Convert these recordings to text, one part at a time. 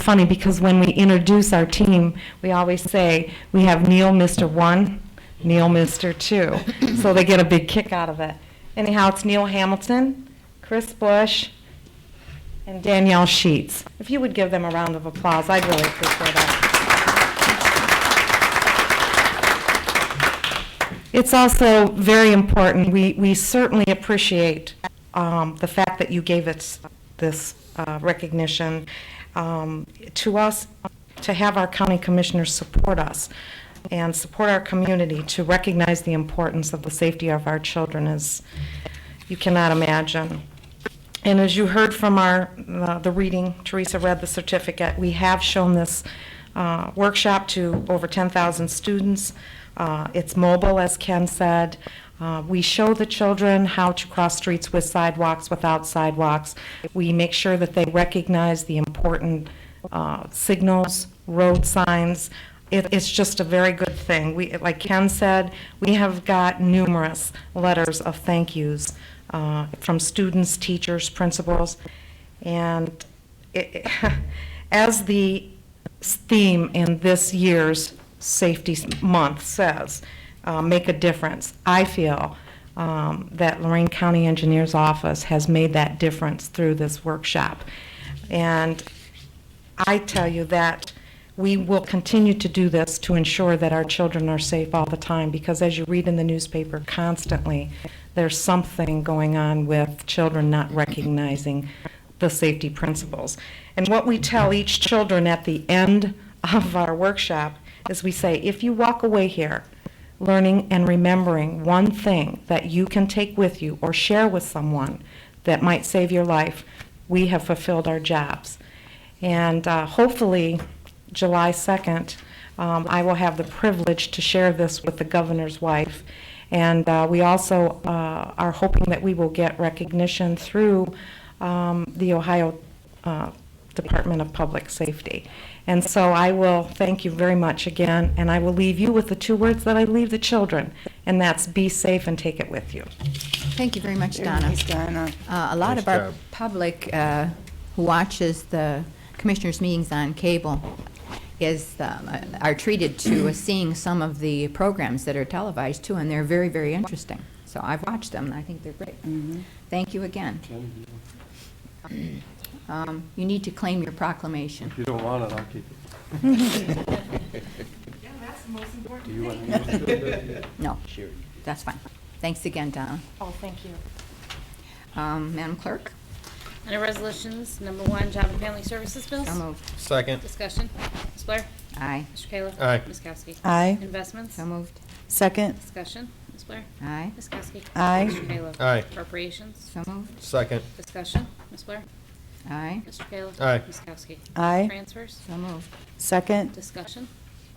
funny because when we introduce our team, we always say, we have Neil Mister One, Neil Mister Two. So they get a big kick out of it. Anyhow, it's Neil Hamilton, Chris Bush, and Danielle Sheets. If you would give them a round of applause, I'd really appreciate that. It's also very important, we, we certainly appreciate um, the fact that you gave us this uh, recognition um, to us, to have our county commissioners support us and support our community to recognize the importance of the safety of our children is, you cannot imagine. And as you heard from our, uh, the reading, Teresa read the certificate, we have shown this uh, workshop to over 10,000 students. Uh, It's mobile, as Ken said. Uh, We show the children how to cross streets with sidewalks, without sidewalks. We make sure that they recognize the important uh, signals, road signs. It- It's just a very good thing. We, like Ken said, we have got numerous letters of thank yous uh, from students, teachers, principals. And it- as the theme in this year's Safety Month says, uh, make a difference, I feel um, that Lorraine County Engineers Office has made that difference through this workshop. And I tell you that we will continue to do this to ensure that our children are safe all the time, because as you read in the newspaper constantly, there's something going on with children not recognizing the safety principles. And what we tell each children at the end of our workshop is we say, if you walk away here learning and remembering one thing that you can take with you or share with someone that might save your life, we have fulfilled our jobs. And uh, hopefully, July 2nd, um, I will have the privilege to share this with the governor's wife. And uh, we also uh, are hoping that we will get recognition through um, the Ohio uh, Department of Public Safety. And so I will thank you very much again, and I will leave you with the two words that I leave the children, and that's be safe and take it with you. Thank you very much, Very Donna. nice, Donna. Uh, A lot Nice of our job. public uh, who watches the commissioners' meetings on cable is, um, are treated to seeing some of the programs that are televised too, and they're very, very interesting. So I've watched them, and I think they're great. Thank you again. Um, You need to claim your proclamation. If you don't want it, I'll keep it. No, that's fine. Thanks again, Donna. Oh, thank you. Um, Madam Clerk? Under Resolutions, number one, Job and Family Services bills. So moved. Second. Discussion. Ms. Blair? Aye. Mr. Kayla? Aye. Ms. Kowski? Aye. Investments? So moved. Second, Discussion. Ms. Blair? Aye. Ms. Kowski? Aye. Mr. Kayla? Aye. Appropriations? So moved. Second. Discussion. Ms. Blair? Aye. Mr. Kayla? Aye. Ms. Kowski? aye. Transfers? So moved. Second, Discussion.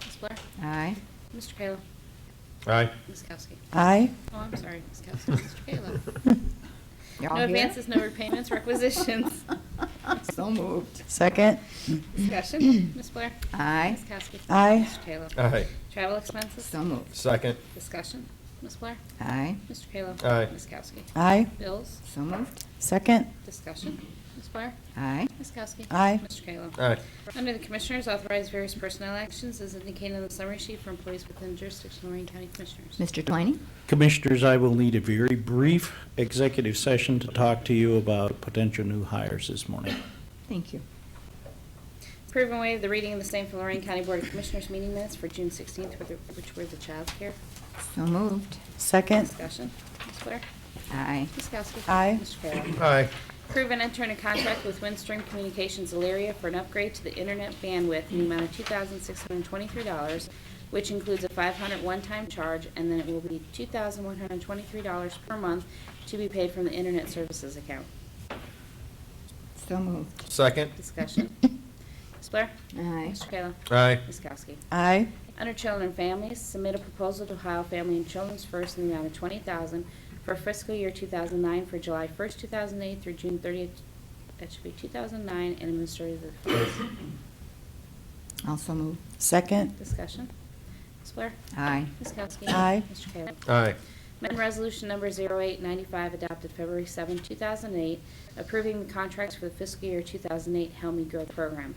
Ms. Blair? Aye. Mr. Kayla? Aye. Ms. Kowski? aye. Oh, I'm sorry, Ms. Kowski. Mr. Kayla? You're all No here? advances, no repayments, requisitions. So moved. Second, Discussion. Ms. Blair? Aye. Ms. Kowski? Aye. Mr. Kayla? Aye. Travel expenses? So moved. Second. Discussion. Ms. Blair? Aye. Mr. Kayla? Aye. Ms. Kowski? aye. Bills? So moved. Second, Discussion. Ms. Blair? Aye. Ms. Kowski? Aye. Mr. Kayla? Aye. Under the Commissioners, authorize various personnel actions as indicated on the summary sheet for employees within jurisdiction of Lorraine County Commissioners. Mr. Twining? Commissioners, I will need a very brief executive session to talk to you about potential new hires this morning. Thank you. Approve and waive the reading of the same for Lorraine County Board of Commissioners meeting minutes for June 16th, with the- which were the child care. So moved. second, Discussion. Ms. Blair? Aye. Ms. Kowski? Aye. Mr. Kayla? Aye. Approve and enter in a contract with Windstream Communications Elaria for an upgrade to the internet bandwidth in the amount of two thousand six hundred twenty-three dollars, which includes a five hundred one-time charge, and then it will be two thousand one hundred twenty-three dollars per month to be paid from the internet services account. So moved. Second. Discussion. Ms. Blair? Aye. Mr. Kayla? Aye. Ms. Kowski? aye. Under Children and Families, submit a proposal to Ohio Family and Children's First in the amount of twenty thousand for fiscal year two thousand nine for July first, two thousand eight through June thirtieth, that should be two thousand nine, and administrative affairs. Also moved. Second, Discussion. Ms. Blair? Aye. Ms. Kowski? Aye. Mr. Kayla? Aye. Amendment Resolution Number 0895, adopted February 7, 2008, approving the contracts for the fiscal year 2008 Helmi Growth Program.